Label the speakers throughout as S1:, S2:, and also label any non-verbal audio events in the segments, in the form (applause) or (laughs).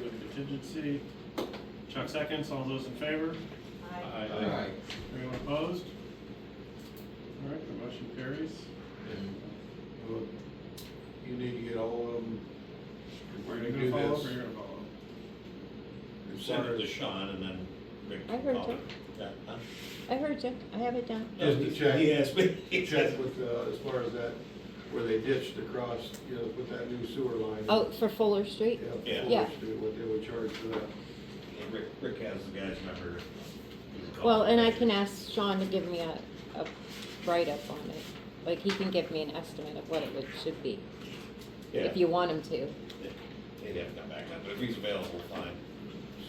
S1: contingency. Chuck seconds, all those in favor?
S2: Aye.
S3: Aye.
S1: Anyone opposed? All right, the motion carries.
S3: And, look, You need to get all of them. if
S1: Are
S3: we're
S1: you
S3: gonna
S1: gonna
S3: do
S1: follow up
S3: this,
S1: or you're gonna follow
S3: as
S4: Send
S3: far
S4: it to
S3: as-
S4: Sean and then Rick
S5: I
S4: can
S5: heard
S4: call
S5: you.
S4: it. Yeah, huh?
S5: I heard you, I have it down.
S3: Just to check.
S4: He asked
S3: (laughs)
S4: me.
S3: Check with, uh, as far as that, where they ditched across, you know, with that new sewer line.
S5: Oh, for Fuller Street?
S3: Yeah,
S4: Yeah.
S3: Fuller
S5: Yeah.
S3: Street, what they would charge for that.
S4: And (laughs) Rick, Rick has the guy's number. You can call
S5: Well,
S4: him.
S5: and I can ask Sean to give me a, a write-up on it. Like, he can give me an estimate of what it would, should be,
S4: Yeah.
S5: if you want him to.
S4: Yeah, He'd have to come back up, but if he's available, fine.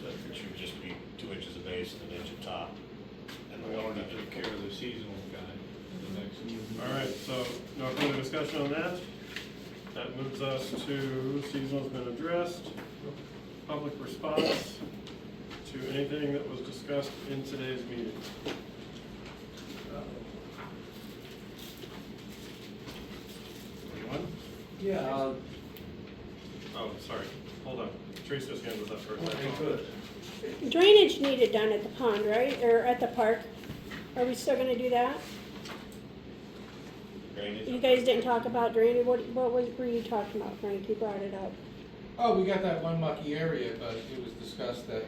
S4: So it should just be two inches of base and an inch of top. And the
S6: We
S4: water
S6: want to
S4: not
S6: take care of the seasonal guy, the next.
S1: up? All right, so no further discussion on that. That moves us to seasonal's been addressed, public response to anything that was discussed in today's meeting. Uh, Anyone?
S7: Yeah, uh,
S1: Oh, sorry, hold on. Teresa's hand was up first.
S6: Oh,
S1: I
S7: I
S1: apologize.
S7: could.
S8: Drainage needed down at the pond, right, or at the park? Are we still gonna do that?
S4: drainage.
S8: You guys didn't talk about drainage, what, what was, were you talking about, Frank, you brought it up?
S7: oh, we got that one mucky area, but it was discussed that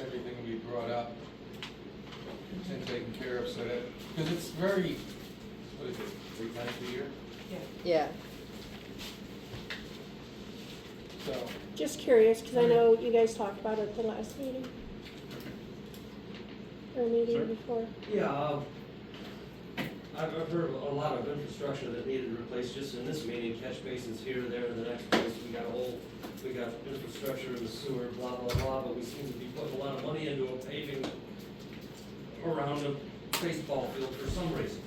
S7: everything we brought up and taken care of, so that, because it's very, what is it, three times a year?
S5: Yeah.
S7: So,
S8: Just curious, cause I know you guys talked about it at the last meeting. Or
S1: Sure.
S8: meeting before.
S7: yeah, um, I've I've heard a lot of infrastructure that needed replaced just in this meeting, catch basins here, there, and the next place, we got a whole, we got infrastructure in the sewer, blah, blah, blah, but we seem to be putting a lot of money into a paving around a baseball field for some reason.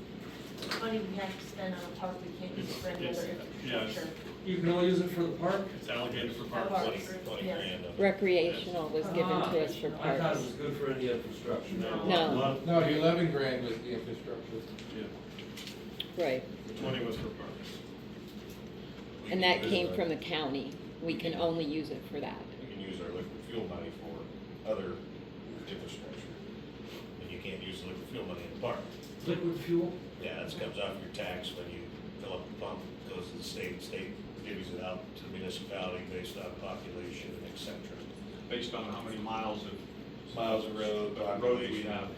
S2: Money we have to spend on a park, we can't use it for any other
S1: It's- yeah, it's-
S2: infrastructure.
S7: You can only use it for the park?
S1: It's allocated for
S2: Parks.
S1: parks.
S4: Twenty, twenty
S2: Yes.
S4: grand. of it.
S5: Recreational was given
S7: Ah,
S5: to us for
S7: I thought
S5: parks.
S7: it was good for any infrastructure.
S1: No.
S5: No.
S1: Lot-
S7: No, the eleven grand was the infrastructure.
S1: yeah,
S5: Right,
S1: Twenty was for parks.
S4: We can
S5: and that
S4: use
S5: came
S4: our-
S5: from the county. We can only use it for that.
S4: We can use our liquid fuel money for other infrastructure. And you can't use the liquid fuel money in the park.
S7: Liquid fuel?
S4: Yeah, that comes off your tax when you fill up the pump, goes to the state, state gives it out to the municipality based on population and et cetera.
S6: Based on how many miles of.
S4: Miles of road,
S6: Road we
S4: population.
S6: have.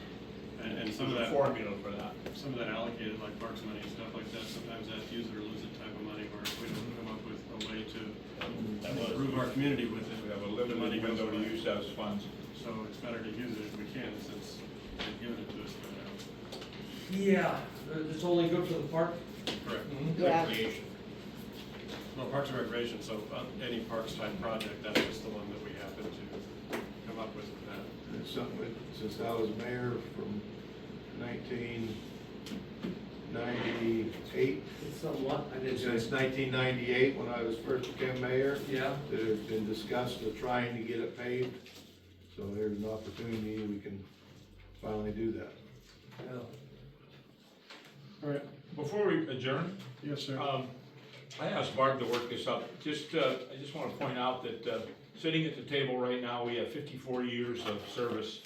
S1: And, and some of
S6: There's
S1: that.
S6: a formula for that.
S1: some of that allocated, like parks money and stuff like that, sometimes that's use it or lose it type of money, where if we don't come up with a way to
S4: That was-
S1: improve our community with it.
S6: We have a
S1: the money
S6: limited
S1: goes
S6: window to
S1: away.
S6: use those funds.
S1: So it's better to use it if we can, since they've given it to us uh, by
S7: Yeah, it's only good for the park?
S1: now. Correct.
S5: Mm-hmm. Yeah.
S4: Recreation.
S1: Well, Parks and Recreation, so uh, any parks type project, that's just the one that we happen to come up with for that.
S3: And It's something that, since I was mayor from nineteen ninety-eight,
S7: It's somewhat, I didn't.
S3: since nineteen ninety-eight, when I was first became mayor,
S7: Yeah,
S3: that has been discussed of trying to get it paved. So there's an opportunity, we can finally do that.
S7: yeah.
S1: All right,
S6: Before we adjourn,
S1: yes, sir.
S4: Uh,
S6: um, I asked Barb to work this up. Just, uh, I just want to point out that, uh, sitting at the table right now, we have fifty-four years of service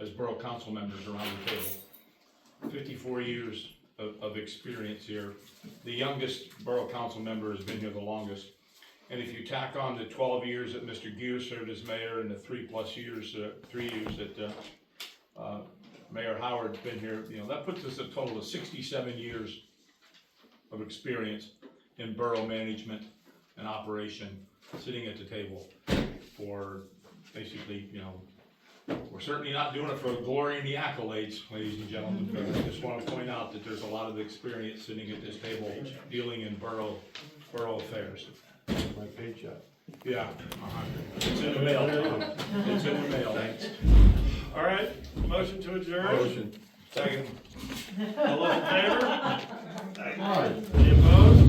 S6: as borough council members around the table. Fifty-four years of, of experience here. The youngest borough council member has been here the longest. And if you tack on the twelve years that Mr. Gear served as mayor and the three-plus years, uh, three years that, uh, uh, Mayor Howard's been here, you know, that puts us a total of sixty-seven years of experience in borough management and operation, sitting at the table for basically, you know, we're certainly not doing it for glory and the accolades, ladies and gentlemen, but I just want to point out that there's a lot of experience sitting at this table dealing in borough, borough affairs.
S3: My paycheck.
S6: Yeah. uh-huh. It's in the mail, Tom. It's in the mail.
S1: All right, motion to adjourn.
S3: Motion.
S4: Second.
S1: All those in favor?
S3: Aye.
S1: Any opposed?